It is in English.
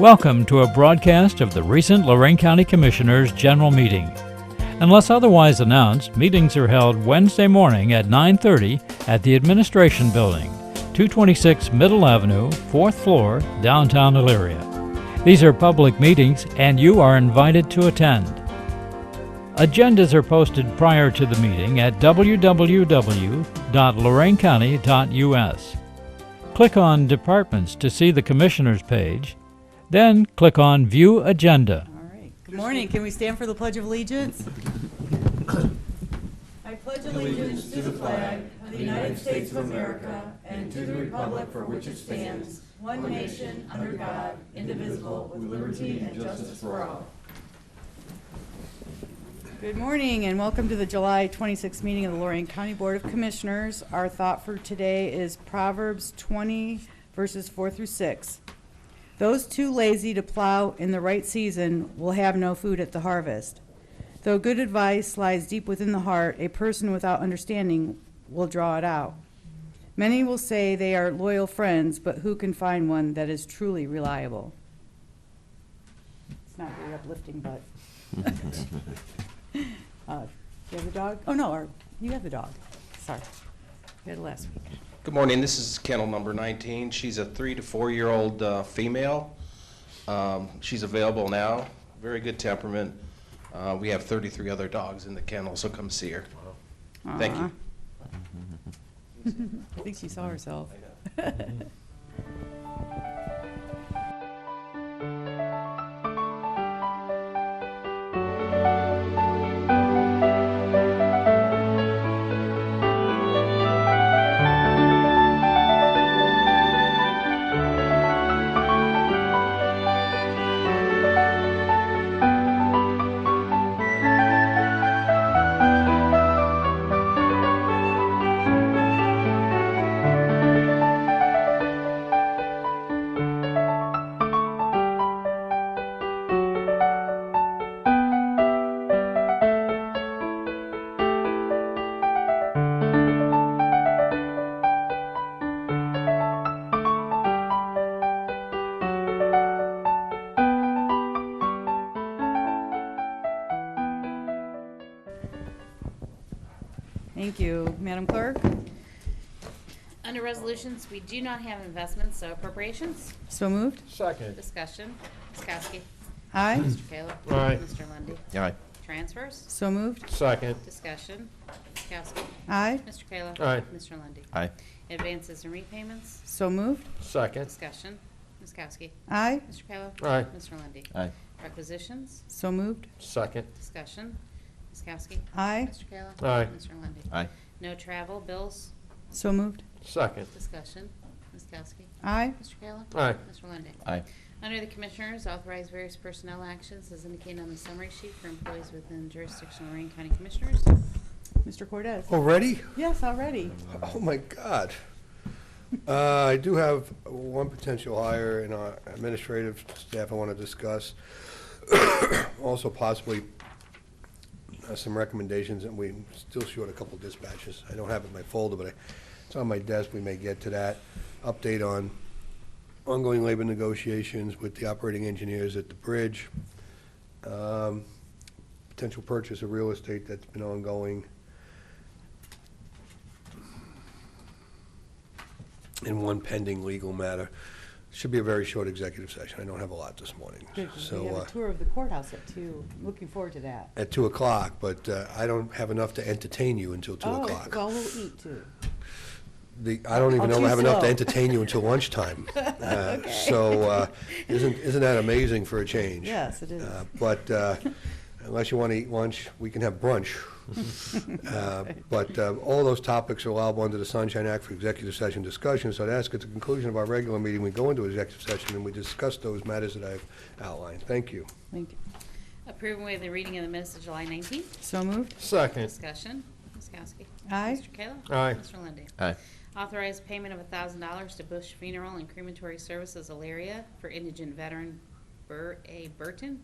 Welcome to a broadcast of the recent Lorraine County Commissioners' General Meeting. Unless otherwise announced, meetings are held Wednesday morning at 9:30 at the Administration Building, 226 Middle Avenue, 4th floor, downtown Elyria. These are public meetings and you are invited to attend. Agendas are posted prior to the meeting at www.loraincounty.us. Click on Departments to see the Commissioners page, then click on View Agenda. All right. Good morning. Can we stand for the Pledge of Allegiance? I pledge allegiance to the flag of the United States of America and to the republic for which it stands, one nation, under God, indivisible, with liberty and justice for all. Good morning and welcome to the July 26th meeting of the Lorraine County Board of Commissioners. Our thought for today is Proverbs 20 verses 4 through 6. Those too lazy to plow in the right season will have no food at the harvest. Though good advice lies deep within the heart, a person without understanding will draw it out. Many will say they are loyal friends, but who can find one that is truly reliable? It's not very uplifting, but. Uh, Do you have the dog? Oh, no, or, you have the dog. Sorry. You had it last week. Good morning, this is kennel number 19. She's a three to four-year-old uh, female. Um, She's available now, very good temperament. Uh, We have 33 other dogs in the kennel, so come see her. Thank you. I think she saw herself. Thank you. Madam Clerk? Under resolutions, we do not have investments, so appropriations, So moved? Second. discussion, Ms. Kowski, Aye. Mr. Kayla. Aye. Mr. Lundy. Aye. Transfers, So moved? Second. discussion, Ms. Kowski, Aye. Mr. Kayla. Aye. Mr. Lundy. Aye. Advances and repayments, So moved? Second. discussion, Ms. Kowski, Aye. Mr. Kayla. Aye. Mr. Lundy. Aye. Requisitions, So moved? Second. discussion, Ms. Kowski, Aye. Mr. Kayla. Aye. Mr. Lundy. Aye. No travel, bills, So moved? Second. discussion, Ms. Kowski, Aye. Mr. Kayla. Aye. Mr. Lundy. Aye. Under the Commissioners, authorize various personnel actions as indicated on the summary sheet for employees within jurisdiction of Lorraine County Commissioners. Mr. Cordez? Already? Yes, already. Oh, my God. Uh, I do have one potential hire in our administrative staff I want to discuss. Also possibly uh, some recommendations, and we still short a couple dispatches. I don't have it in my folder, but I- it's on my desk, we may get to that. Update on ongoing labor negotiations with the operating engineers at the bridge. Um, Potential purchase of real estate that's been ongoing. and one pending legal matter. Should be a very short executive session. I don't have a lot this morning. Good. We So have uh, a tour of the courthouse at two. Looking forward to that. At 2 o'clock, but uh, I don't have enough to entertain you until 2 Oh, o'clock. well, we'll eat too. The- I don't even I'm know too I have enough slow. to entertain you until lunchtime. Uh, So uh, isn't isn't that amazing for a change? Yes, it is. Uh, But uh, unless you want to eat lunch, we can have brunch. Uh, But uh, all those topics are allowable under the Sunshine Act for executive session discussion, so I'd ask at the conclusion of our regular meeting, we go into executive session and we discuss those matters that I've outlined. Thank you. Thank you. Approve and waive the reading of the minutes of July 19th. So moved? Second. Discussion, Ms. Kowski. Aye. Mr. Kayla. Aye. Mr. Lundy. Aye. Authorize payment of $1,000 to Bush Funeral and Crematory Services Alaria for indigent veteran Burr A. Burton